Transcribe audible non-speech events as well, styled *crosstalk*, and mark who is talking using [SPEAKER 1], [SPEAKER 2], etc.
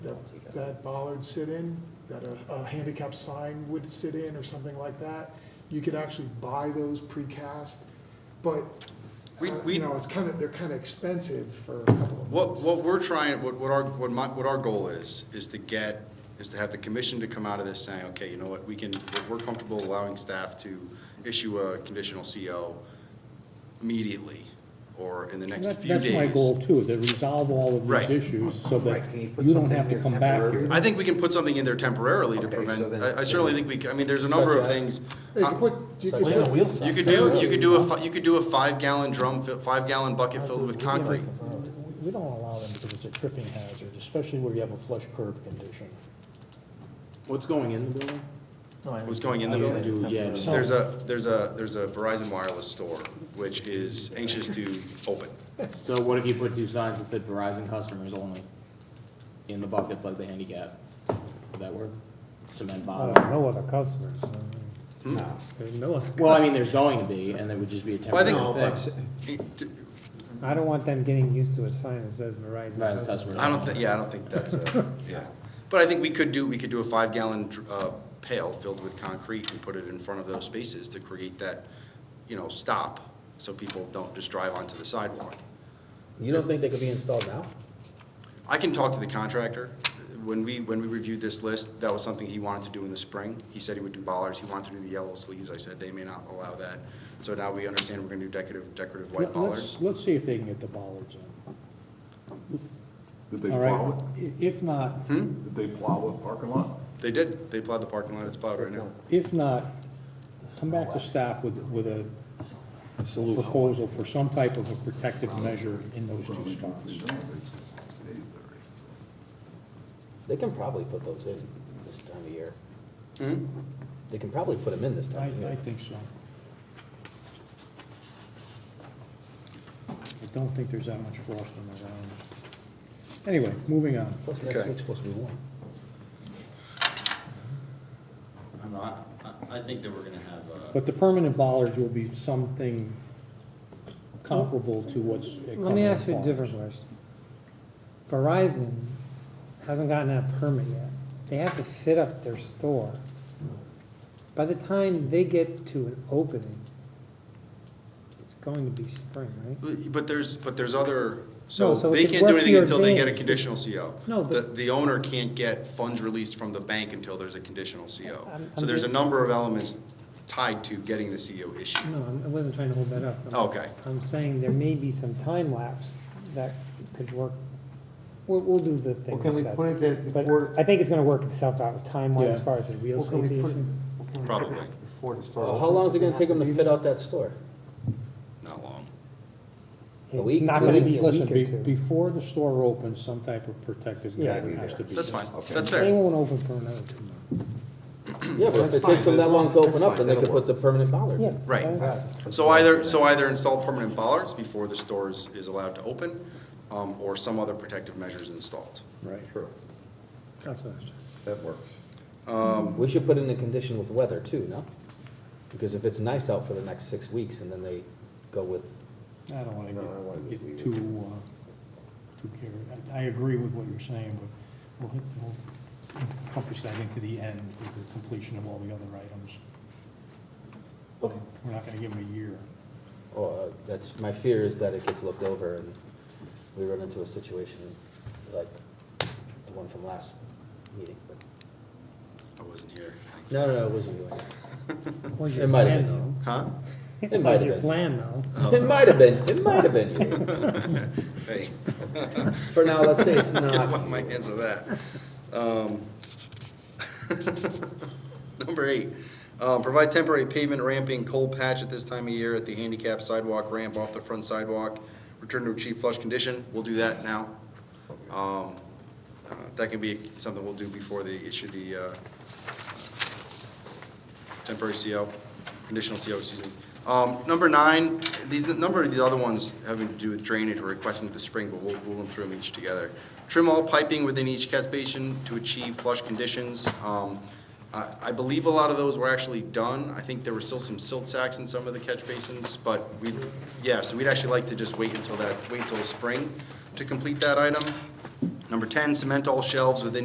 [SPEAKER 1] that bollards sit in, that a, a handicap sign would sit in or something like that. You could actually buy those precast, but, uh,
[SPEAKER 2] We- we-
[SPEAKER 1] you know, it's kind of, they're kind of expensive for a couple of
[SPEAKER 2] What,
[SPEAKER 1] months.
[SPEAKER 2] what we're trying, what, what our, what my, what our goal is, is to get, is to have the commission to come out of this saying, okay, you know what, we can, we're comfortable allowing staff to issue a conditional CO immediately, or in the next
[SPEAKER 3] That-
[SPEAKER 2] few
[SPEAKER 3] That's my
[SPEAKER 2] days.
[SPEAKER 3] goal too, to resolve all of
[SPEAKER 2] Right.
[SPEAKER 3] these issues so
[SPEAKER 4] Right,
[SPEAKER 3] that
[SPEAKER 4] can you put
[SPEAKER 3] you don't
[SPEAKER 4] something
[SPEAKER 3] have to
[SPEAKER 4] there
[SPEAKER 3] come back
[SPEAKER 4] temporary?
[SPEAKER 3] here.
[SPEAKER 2] I think we can put something in there temporarily to
[SPEAKER 4] Okay, so
[SPEAKER 2] prevent,
[SPEAKER 4] then-
[SPEAKER 2] I I certainly think we, c- I mean, there's a number of
[SPEAKER 4] Such as-
[SPEAKER 2] things.
[SPEAKER 1] Hey, you
[SPEAKER 2] Uh,
[SPEAKER 1] could put- you could
[SPEAKER 4] Such
[SPEAKER 1] put-
[SPEAKER 4] as wheels.
[SPEAKER 2] You could do, you could do a, fi- you could do a five-gallon drum, fi- five-gallon bucket filled with concrete.
[SPEAKER 5] We don't allow them because it's a tripping hazard, especially where you have a flush curb condition.
[SPEAKER 6] What's going in the building?
[SPEAKER 2] What's going in the building?
[SPEAKER 6] Do- Yeah,
[SPEAKER 5] So-
[SPEAKER 2] There's a, there's a, there's a Verizon Wireless store, which is anxious to open.
[SPEAKER 6] so what if you put two signs that said Verizon customers only in the buckets like the handicap? Would that work? Cement
[SPEAKER 3] I
[SPEAKER 6] bottom?
[SPEAKER 3] don't know other customers. I mean, There's no other.
[SPEAKER 6] Well, I mean, there's going to be, and it would just be a
[SPEAKER 2] Well, I think-
[SPEAKER 6] temporary thing.
[SPEAKER 2] It- d-
[SPEAKER 3] I don't want them getting used to a sign that says Verizon.
[SPEAKER 6] Verizon customers.
[SPEAKER 2] I don't think, yeah, I don't think that's a, yeah. But I think we could do, we could do a five-gallon dr- uh, pail filled with concrete and put it in front of those spaces to create that, you know, stop, so people don't just drive onto the sidewalk.
[SPEAKER 4] You don't think they could be installed now?
[SPEAKER 2] I can talk to the contractor. When we, when we reviewed this list, that was something he wanted to do in the spring. He said he would do bollards, he wanted to do the yellow sleeves. I said they may not allow that. So now we understand we're gonna do decorative, decorative white
[SPEAKER 3] Let-
[SPEAKER 2] bollards.
[SPEAKER 3] Let's, let's see if they can get the bollards in.
[SPEAKER 7] Did they
[SPEAKER 3] All
[SPEAKER 7] plow
[SPEAKER 3] right,
[SPEAKER 7] it?
[SPEAKER 3] I- if not,
[SPEAKER 2] Hmm?
[SPEAKER 7] Did they plow the parking lot?
[SPEAKER 2] They did, they plowed the parking lot, it's plowed right now.
[SPEAKER 3] if not, come back to staff with, with a proposal for some type of a protective measure in those two spots.
[SPEAKER 4] They can probably put those in this time of year. Hmm? They can probably put them in this
[SPEAKER 3] I,
[SPEAKER 4] time of
[SPEAKER 3] I
[SPEAKER 4] year.
[SPEAKER 3] think so. I don't think there's that much frost on the ground. Anyway, moving on.
[SPEAKER 4] Plus
[SPEAKER 2] Okay.
[SPEAKER 4] next week's supposed to be warm.
[SPEAKER 2] I don't know, I, I- I think that we're gonna have, uh,
[SPEAKER 3] But the permanent bollards will be something comparable to what's.
[SPEAKER 8] Let me ask you a different question. Verizon hasn't gotten that permit yet. They have to fit up their store. By the time they get to an opening, it's going to be spring, right?
[SPEAKER 2] but there's, but there's other,
[SPEAKER 8] No, so
[SPEAKER 2] so
[SPEAKER 8] it
[SPEAKER 2] they
[SPEAKER 8] could
[SPEAKER 2] can't do
[SPEAKER 8] work to
[SPEAKER 2] anything
[SPEAKER 8] your
[SPEAKER 2] until they get a
[SPEAKER 8] advantage.
[SPEAKER 2] conditional CO.
[SPEAKER 8] No,
[SPEAKER 2] The,
[SPEAKER 8] but-
[SPEAKER 2] the owner can't get funds released from the bank until there's a conditional CO.
[SPEAKER 8] I'm-
[SPEAKER 2] So
[SPEAKER 8] I'm
[SPEAKER 2] there's a
[SPEAKER 8] getting-
[SPEAKER 2] number of elements tied to getting the CO issued.
[SPEAKER 8] No, I'm- I wasn't trying to hold that up. I'm-
[SPEAKER 2] Okay.
[SPEAKER 8] I'm saying there may be some time lapse that could work. We'll, we'll do the thing.
[SPEAKER 9] Well, can we
[SPEAKER 8] set.
[SPEAKER 9] put it that
[SPEAKER 8] But
[SPEAKER 9] before,
[SPEAKER 8] I think it's gonna work itself out time-wise as
[SPEAKER 3] Yeah.
[SPEAKER 8] far as the real
[SPEAKER 9] well, can
[SPEAKER 8] safety
[SPEAKER 9] we put it?
[SPEAKER 8] issue.
[SPEAKER 9] well, can we put it
[SPEAKER 2] Probably.
[SPEAKER 9] Before the store.
[SPEAKER 4] Well, How
[SPEAKER 9] opens?
[SPEAKER 4] long is it gonna take them to fit out that store?
[SPEAKER 2] Not long.
[SPEAKER 4] A week,
[SPEAKER 8] It's not
[SPEAKER 4] two
[SPEAKER 8] gonna
[SPEAKER 4] weeks?
[SPEAKER 8] be a
[SPEAKER 3] Listen,
[SPEAKER 8] week
[SPEAKER 3] be-
[SPEAKER 8] or two.
[SPEAKER 3] before the store opens, some type of protective
[SPEAKER 9] Yeah,
[SPEAKER 3] measure
[SPEAKER 9] be
[SPEAKER 3] has
[SPEAKER 9] there.
[SPEAKER 3] to be.
[SPEAKER 2] That's fine,
[SPEAKER 3] done.
[SPEAKER 2] that's
[SPEAKER 3] They
[SPEAKER 2] fair.
[SPEAKER 3] won't open for another two months.
[SPEAKER 4] Yeah, but if
[SPEAKER 9] That's
[SPEAKER 4] it takes
[SPEAKER 9] fine,
[SPEAKER 4] them that
[SPEAKER 9] that's
[SPEAKER 4] long to
[SPEAKER 9] fine,
[SPEAKER 4] open
[SPEAKER 9] that's
[SPEAKER 4] up, then
[SPEAKER 9] fine,
[SPEAKER 4] they could
[SPEAKER 9] that'll
[SPEAKER 4] put the permanent bollards
[SPEAKER 8] Yeah.
[SPEAKER 4] in.
[SPEAKER 2] Right.
[SPEAKER 9] Right.
[SPEAKER 2] So either, so either install permanent bollards before the stores is allowed to open, um, or some other protective measures installed.
[SPEAKER 3] Right.
[SPEAKER 4] True.
[SPEAKER 3] That's what I was trying
[SPEAKER 4] That works. We should put in a condition with weather too, no? Because if it's nice out for the next six weeks and then they go with,
[SPEAKER 3] to say. I don't wanna
[SPEAKER 4] No, I wanted to
[SPEAKER 3] get,
[SPEAKER 4] leave
[SPEAKER 3] get
[SPEAKER 4] it.
[SPEAKER 3] too, uh, too carried. I, I agree with what you're saying, but we'll, we'll encompass that into the end with the completion of all the other items.
[SPEAKER 4] Okay.
[SPEAKER 3] We're not gonna give them a year.
[SPEAKER 4] oh, uh, that's, my fear is that it gets looked over and we run into a situation like the one from last meeting, but,
[SPEAKER 2] I wasn't here.
[SPEAKER 4] no, no, no, it wasn't you.
[SPEAKER 8] Was
[SPEAKER 4] It
[SPEAKER 8] your
[SPEAKER 4] might
[SPEAKER 8] plan
[SPEAKER 4] have been
[SPEAKER 8] though?
[SPEAKER 2] Huh?
[SPEAKER 4] It might
[SPEAKER 8] Was
[SPEAKER 4] have
[SPEAKER 8] your
[SPEAKER 4] been.
[SPEAKER 8] plan though?
[SPEAKER 4] you. It might have been, it might have been you.
[SPEAKER 2] Hey,
[SPEAKER 4] For now, let's
[SPEAKER 2] *laughs*
[SPEAKER 4] say it's
[SPEAKER 2] I
[SPEAKER 4] not.
[SPEAKER 2] want my hands on that. Um, *laughs* Number eight, uh, provide temporary pavement ramping cold patch at this time of year at the handicap sidewalk ramp off the front sidewalk. Return to achieve flush condition. We'll do that now. Um, uh, That can be something we'll do before they issue the uh, temporary CO, conditional CO, excuse me. Um, Number nine, these, the number of these other ones having to do with drainage, we're requesting with the spring, but we'll rule them through them each together. Trim all piping within each catch basin to achieve flush conditions. Um, I, I believe a lot of those were actually done. I think there were still some silt sacks in some of the catch basins, but we, yeah, so we'd actually like to just wait until that, wait until spring to complete that item. Number ten, cement all shelves within